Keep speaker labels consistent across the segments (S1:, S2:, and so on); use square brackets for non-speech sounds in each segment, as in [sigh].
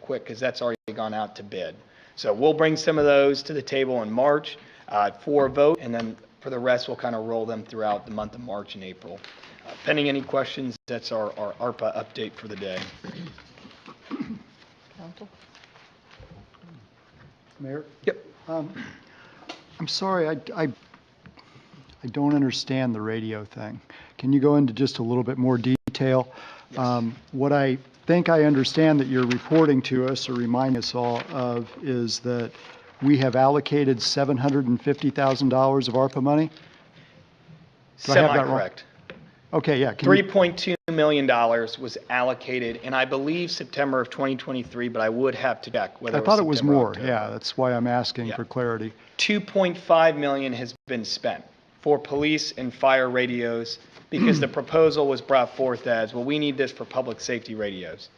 S1: quick because that's already gone out to bid. So we'll bring some of those to the table in March uh, for a vote, and then for the rest, we'll kind of roll them throughout the month of March and April. Uh, Pending any questions, that's our our ARPA update for the day.
S2: Mayor?
S1: Yep.
S2: Um, I'm sorry, I- I, I don't understand the radio thing. Can you go into just a little bit more detail? Um, What I think I understand that you're reporting to us or reminding us all of is that we have allocated $750,000 of ARPA money? Do I have that wrong?
S1: Semi-correct.
S2: Okay, yeah. can you-
S1: $3.2 million was allocated, and I believe September of 2023, but I would have to check whether
S2: I
S1: it was
S2: thought it was
S1: September or
S2: more,
S1: October.
S2: yeah, that's why I'm asking
S1: Yeah.
S2: for clarity.
S1: 2.5 million has been spent for police and fire radios because the proposal was brought forth as, well, we need this for public safety radios.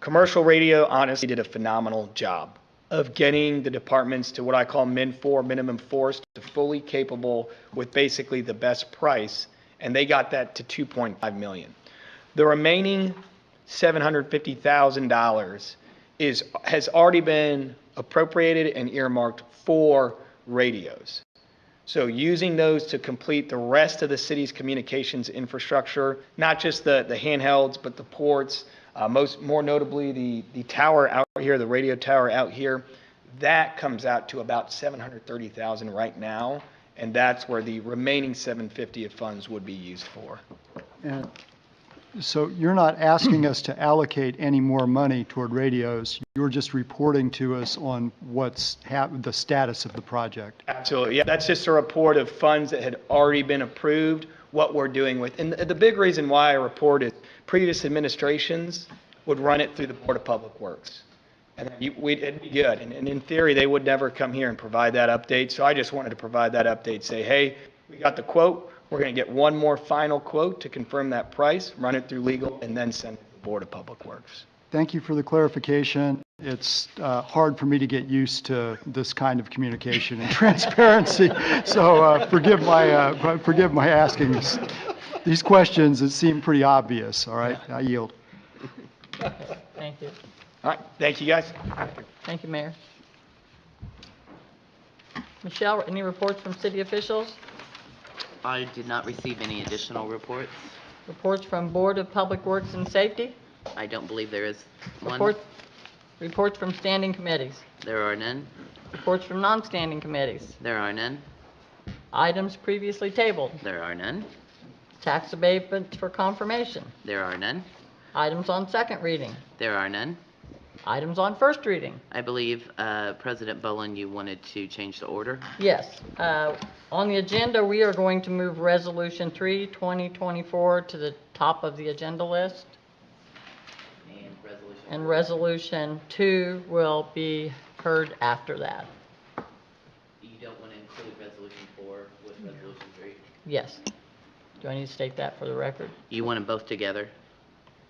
S1: Commercial radio honestly did a phenomenal job of getting the departments to what I call min four, minimum force, to fully capable with basically the best price, and they got that to 2.5 million. The remaining $750,000 is, has already been appropriated and earmarked for radios. So using those to complete the rest of the city's communications infrastructure, not just the, the handhelds, but the ports, uh, most, more notably, the, the tower out here, the radio tower out here, that comes out to about 730,000 right now, and that's where the remaining 750 of funds would be used for.
S2: And So you're not asking us to allocate any more money toward radios. You're just reporting to us on what's hap, the status of the project.
S1: Absolutely. Yeah, that's just a report of funds that had already been approved, what we're doing with. And the the big reason why I report is previous administrations would run it through the Board of Public Works. And you- we'd, it'd be good. And and in theory, they would never come here and provide that update. So I just wanted to provide that update, say, hey, we got the quote. We're going to get one more final quote to confirm that price, run it through legal, and then send it to the Board of Public Works.
S2: Thank you for the clarification. It's uh, hard for me to get used to this kind of communication and [laughs] transparency, so uh, forgive my, uh, forgive my asking this- these questions that seem pretty obvious, all right? I yield.
S3: Thank you.
S1: All right, thank you, guys.
S3: Thank you, Mayor. Michelle, any reports from city officials?
S4: I did not receive any additional reports.
S3: Reports from Board of Public Works and Safety?
S4: I don't believe there is one.
S3: Reports, reports from standing committees?
S4: There are none.
S3: Reports from non-standing committees?
S4: There are none.
S3: Items previously tabled?
S4: There are none.
S3: Tax abatements for confirmation?
S4: There are none.
S3: Items on second reading?
S4: There are none.
S3: Items on first reading?
S4: I believe, uh, President Bolin, you wanted to change the order.
S3: Yes. uh, On the agenda, we are going to move Resolution 3, 2024 to the top of the agenda list.
S4: And resolution.
S3: And Resolution 2 will be heard after that.
S4: You don't want to include resolution four with resolution three?
S3: Yes. Do I need to state that for the record?
S4: You want them both together?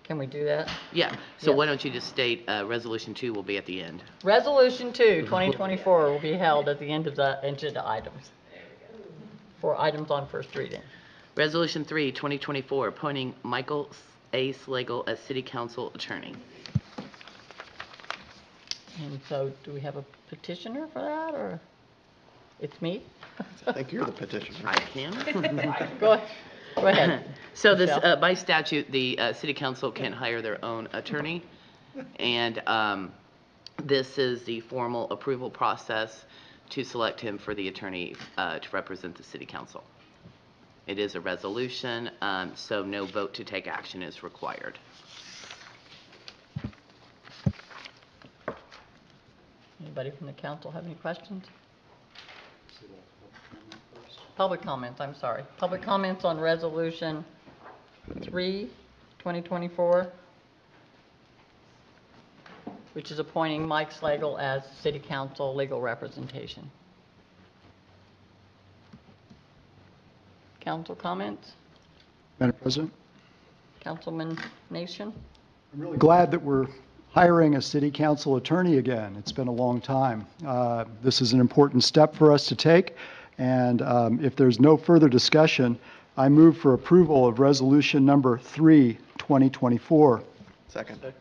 S3: Can we do that?
S4: Yeah. So
S3: Yeah.
S4: why don't you just state, uh, resolution two will be at the end?
S3: Resolution 2, 2024 will be held at the end of the agenda items. For items on first reading.
S4: Resolution three, 2024, appointing Michael A. Slagle as city council attorney.
S3: And so do we have a petitioner for that, or? It's me?
S5: I think you're the petitioner.
S4: I can.
S3: Go ahead. Go ahead.
S4: So this,
S3: Michelle?
S4: uh, by statute, the uh, city council can hire their own attorney, and um, this is the formal approval process to select him for the attorney uh, to represent the city council. It is a resolution, um, so no vote to take action is required.
S3: Anybody from the council have any questions? Public comments, I'm sorry. Public comments on Resolution 3, 2024, which is appointing Mike Slagle as city council legal representation. Council comments?
S2: Madam President?
S3: Councilman Nation?
S2: I'm really glad that we're hiring a city council attorney again. It's been a long time. Uh, This is an important step for us to take, and um, if there's no further discussion, I move for approval of Resolution Number 3, 2024.
S5: Second.